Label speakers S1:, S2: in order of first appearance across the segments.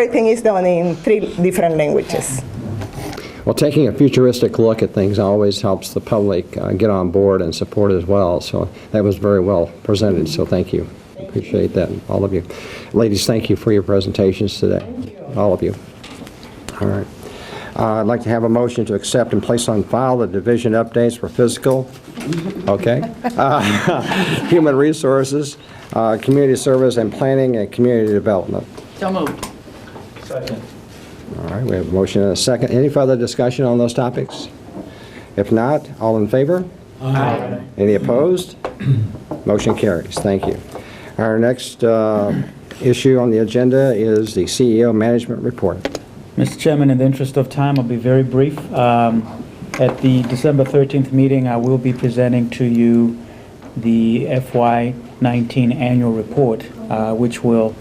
S1: Everything is done in three different languages.
S2: Well, taking a futuristic look at things always helps the public uh, get on board and support as well. So that was very well presented, so thank you. Appreciate that, all of you. Ladies, thank you for your presentations today. All of you. All right. Uh, I'd like to have a motion to accept and place on file the division updates for physical, okay? Uh, Human resources, uh, community service, and planning and community development.
S3: So moved.
S2: All right, we have a motion and a second. Any further discussion on those topics? If not, all in favor? Aye. Any opposed? Motion carries. Thank you. Our next uh, issue on the agenda is the CEO Management Report.
S4: Mr. Chairman, in the interest of time, I'll be very brief. Um, At the December 13th meeting, I will be presenting to you the FY19 annual report, uh, which will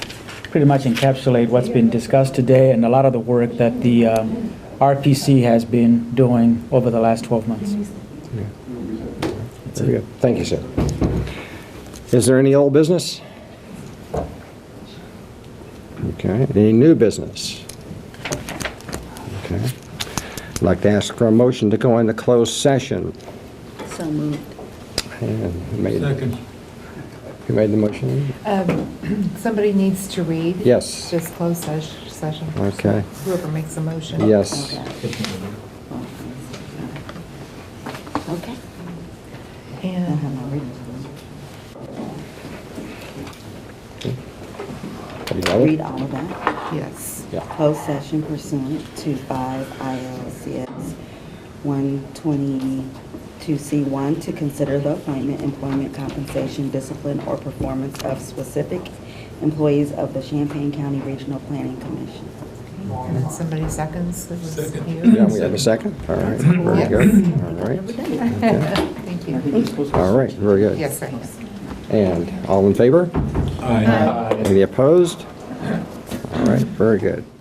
S4: pretty much encapsulate what's been discussed today and a lot of the work that the um, RPC has been doing over the last 12 months.
S2: Very good. Thank you, sir. Is there any old business? Okay, any new business? Okay. I'd like to ask for a motion to go into closed session.
S3: So moved.
S2: And who made-
S5: Second.
S2: Who made the motion?
S6: Um, Somebody needs to read.
S2: Yes.
S6: This closed ses- session.
S2: Okay.
S6: Whoever makes the motion.
S2: Yes.
S3: Okay.
S6: And
S2: Have you got it?
S3: Read all of that.
S6: Yes.
S2: Yeah.
S3: Closed session pursuant to 5 ILCS 122C1 to consider the appointment, employment, compensation, discipline, or performance of specific employees of the Champaign County Regional Planning Commission.
S6: And then somebody seconds. This is
S5: Second.
S6: you.
S2: Yeah, we have a second? All right, very good. All right,
S6: Thank you.
S2: all right, very good.
S6: Yes, thanks.
S2: And all in favor?
S5: Aye.
S2: Any opposed? All right, very good.